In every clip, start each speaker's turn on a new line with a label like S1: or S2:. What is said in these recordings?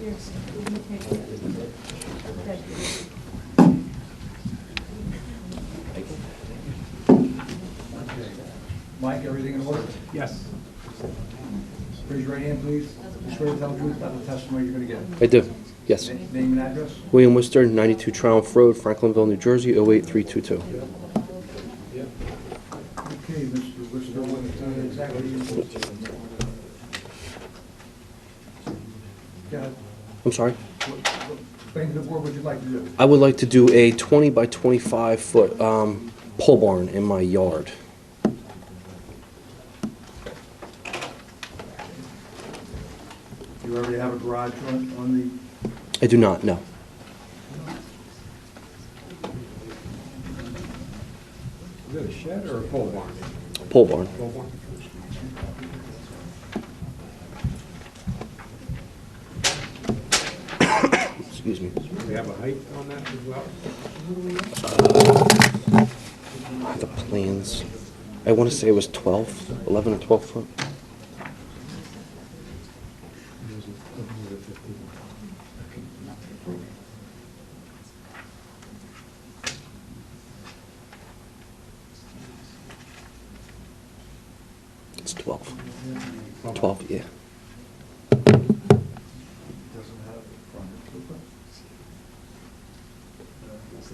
S1: Yes, we can take that. Thank you.
S2: Mike, everything in order?
S3: Yes.
S2: Raise your right hand, please. You swear to tell the truth, not the testimony you're going to give.
S4: I do, yes.
S2: Na- Name and address.
S4: William Worcester, 92 Triumph Road, Franklinville, New Jersey, 08322.
S2: Okay, Mr. Worcester, what uh, exactly? you- Yeah,
S4: I'm sorry.
S2: what- what thing the board would you like to do?
S4: I would like to do a 20 by 25 foot um, pole barn in my yard.
S2: You already have a garage on, on the,
S4: I do not, no.
S3: Is it a shed or a pole barn?
S4: Pole barn.
S3: Pole barn.
S4: Excuse me.
S3: Do you have a height on that as well?
S4: The plans. I want to say it was 12, 11 or 12 foot. It's 12. 12, yeah.
S2: doesn't have a front, does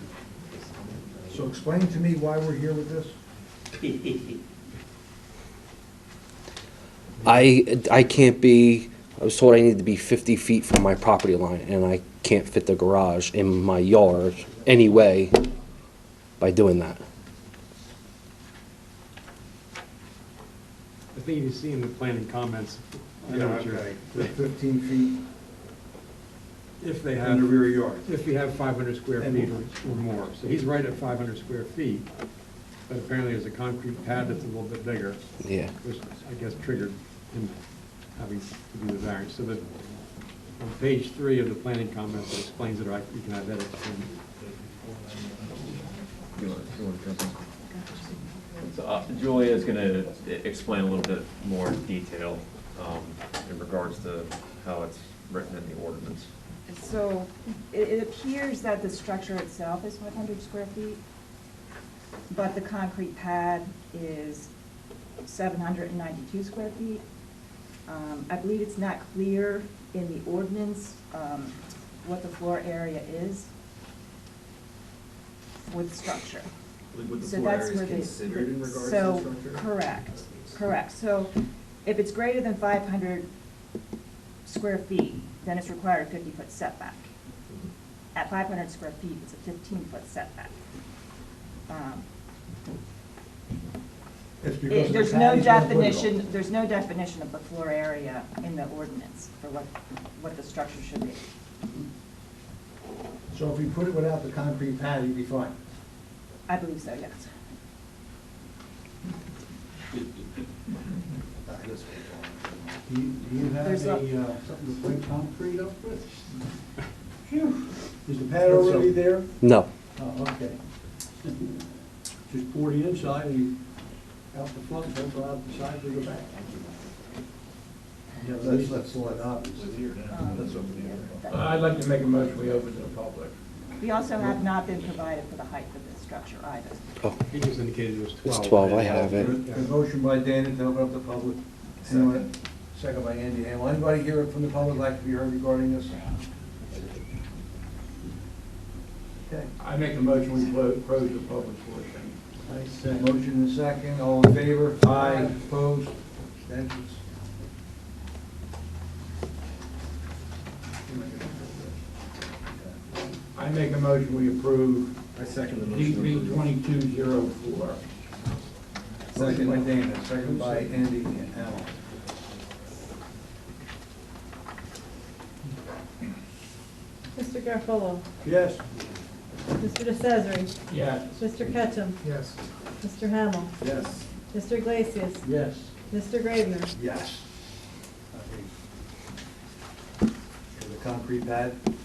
S2: it? So explain to me why we're here with this?
S4: I, I can't be, I was told I need to be 50 feet from my property line, and I can't fit the garage in my yard anyway by doing that.
S3: I think you see in the planning comments, I know what you're-
S2: The Fifteen feet
S3: if they
S2: in
S3: have,
S2: the rear yard.
S3: if you have 500 square feet or or more. So he's right at 500 square feet, but apparently there's a concrete pad that's a little bit bigger,
S4: Yeah.
S3: which I guess triggered him having to do the variance. So that, on page three of the planning comments, it explains it, or I- you can have that explained.
S5: So uh, Julia's gonna explain a little bit more in detail um, in regards to how it's written in the ordinance.
S1: So it, it appears that the structure itself is five hundred square feet, but the concrete pad is seven hundred and ninety-two square feet. Um, I believe it's not clear in the ordinance, um, what the floor area is with structure.
S6: Would the
S1: So
S6: floor
S1: that's
S6: area
S1: where they-
S6: considered in regards to the
S1: So,
S6: structure?
S1: correct, correct. So if it's greater than five hundred square feet, then it's required a fifty-foot setback.
S6: Mm-hmm.
S1: At five hundred square feet, it's a fifteen-foot setback. Um,
S2: It's
S1: it-
S2: because the
S1: There's
S2: pad
S1: no
S2: is not vertical.
S1: definition, there's no definition of the floor area in the ordinance for what, what the structure should be.
S2: So if you put it without the concrete pad, you'd be fine.
S1: I believe so, yes.
S7: Do you- do you have
S1: There's
S7: a,
S1: a-
S7: uh, something to play concrete up with? Phew. Is the pad already
S2: So-
S7: there?
S4: No.
S7: Oh, okay. Just pour the inside and out the front, don't go out the side, we go back.
S2: Yeah, let's, let's let up.
S1: Um,
S2: That's open here.
S8: I'd like to make a motion, we open to the public.
S1: We also have not been provided for the height of the structure either.
S4: Oh,
S3: He just indicated it was 12.
S4: it's 12. I have
S2: The
S4: it.
S2: the motion by Dana to open up the public. Anyone- Second by Andy Hamel. Anybody here from the public like to be heard regarding this? Okay,
S8: I make a motion, we clo- close the public portion.
S7: I said,
S2: motion and second, all in favor? Aye. Opposed? Abstentions?
S8: I make a motion, we approve
S6: I second the
S8: DB
S6: motion.
S8: twenty-two zero four.
S2: Motion by Dana, second by Andy Hamel.
S9: Mr. Garafolo,
S7: yes,
S9: Mr. DeCesare,
S8: Yes.
S9: Mr. Ketchum,
S8: Yes.
S9: Mr. Hamel,
S6: Yes.
S9: Mr. Iglesias,
S7: yes.
S9: Mr. Gravener.
S2: Yes. Okay. The concrete pad?